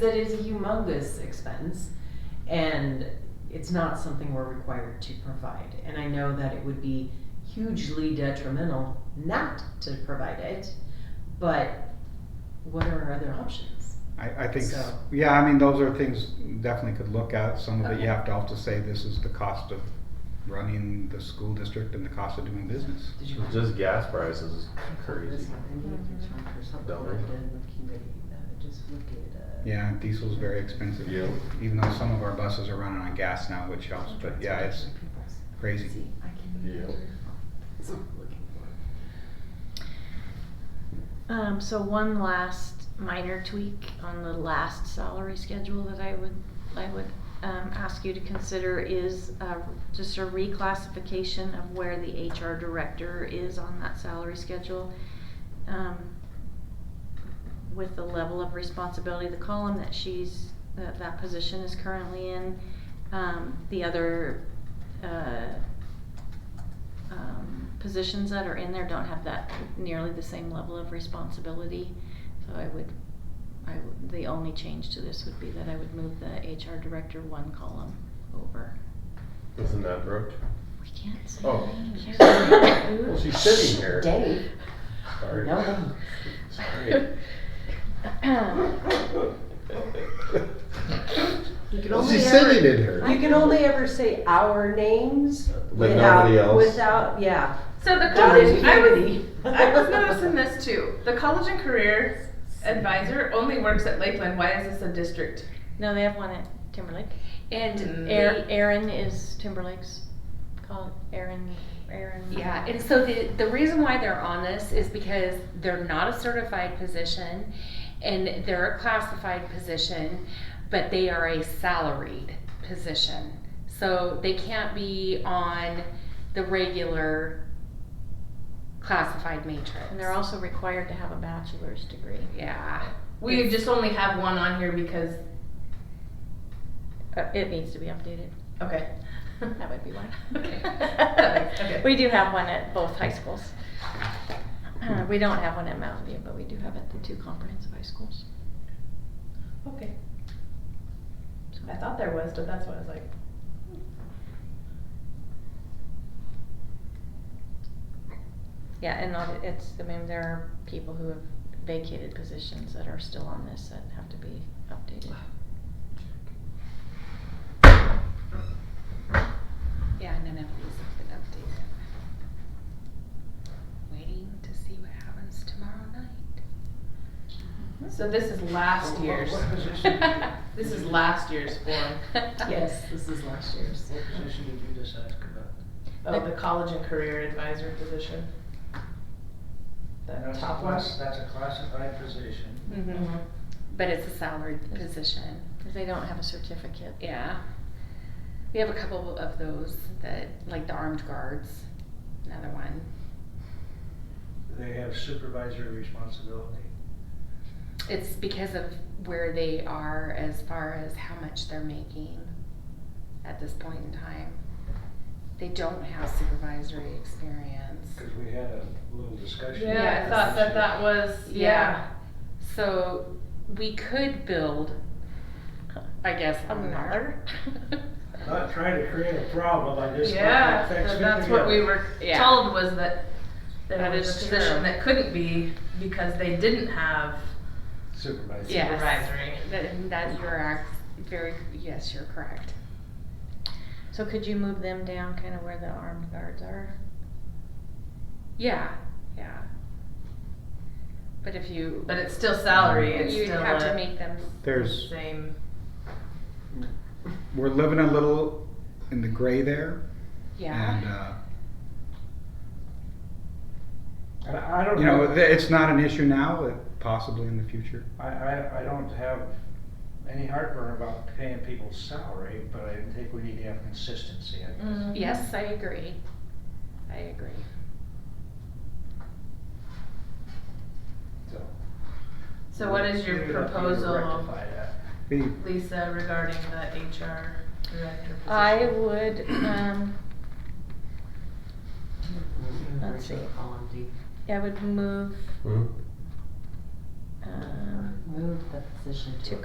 That is a humongous expense, and it's not something we're required to provide. And I know that it would be hugely detrimental not to provide it, but what are our other options? I, I think, s- So- yeah, I mean, those are things you definitely could look at. Some of it Okay. you have to also say, this is the cost of running the school district and the cost of doing business. Did you? Just gas prices is This crazy. one, I need to Mm-hmm. try for something Double. like that, looking at, uh, just look at, uh. Yeah, diesel's very expensive. Yeah. Even though some of our buses are running on gas now, which helps, but yeah, it's crazy. See, I can. Yeah. That's what I'm looking for. Um, so one last minor tweak on the last salary schedule that I would, I would, um, ask you to consider is, uh, just a reclassification of where the HR director is on that salary schedule. Um, with the level of responsibility, the column that she's, that that position is currently in, um, the other, uh, um, positions that are in there don't have that nearly the same level of responsibility. So I would, I, would- the only change to this would be that I would move the HR director one column over. Isn't that Brooke? We can't say Oh. names. Well, Mm-hmm. Well, she's sitting here. Dave. Sorry. No. Sorry. You can Well, only she's ever- sitting in here. You can only ever say our names But without, nobody else. without, yeah. So the Dotted college, I was, unity. I was noticing this too. The college and career advisor only works at Lakeland. Why is this a district? No, they have one at Timberlake. And Erin, the, Erin is Timberlake's, called Erin, Erin. yeah, and so the, the reason why they're on this is because they're not a certified position and they're a classified position, but they are a salaried position. So they can't be on the regular classified matrix. And they're also required to have a bachelor's degree. Yeah, We just only have one on here because, Uh, it needs to be updated. okay. That would be one. Okay. That makes- okay. We do have one at both high schools. Uh, we don't have one at Mountain View, but we do have it at the two comprehensive high schools. Okay. I thought there was, but that's what I was like. Yeah, and not, it's, I mean, there are people who have vacated positions that are still on this that have to be updated. yeah, none of these have been updated. Waiting to see what happens tomorrow night. hmm. So this is last Oh, year's. This is last year's form. Yes, this is last year's. What position did you just ask about? Oh, the college and career advisor position. The top one. that's a classified position. Mhm. Mhm. But it's a salaried position. Cause they don't have a certificate. Yeah. We have a couple of those that, like the armed guards, another one. They have supervisory responsibility. It's because of where they are as far as how much they're making at this point in time. They don't have supervisory experience. Cause we had a little discussion. Yeah, I Yes. thought that that was, yeah. So we could build, I guess, on there. Not trying to create a problem, I just. thought it Yeah, that- fixed it that's what we together. were Yeah. told was that there That was is a position true. that couldn't be because they didn't have Supervisory. Yes. supervisory. That, that you're ac- very, yes, you're correct. So could you move them down kinda where the armed guards are? Yeah, yeah. But if you, But it's still salary, it's you'd still have to a make them There's same. we're living a little in the gray there. And, Yeah. uh, And I don't you know, know, th- it's not an issue now, it- possibly in the future. I, I, I don't have any heartburn about paying people's salary, but I think we need to have consistency, I Mm. guess. Yes, I agree. I agree. So- So what is your Maybe that we need to proposal, rectify that. The, Lisa, regarding the HR director position? I would, um, Let's see. Column D. I would move, Hmm? um, Uh, Move the position to To a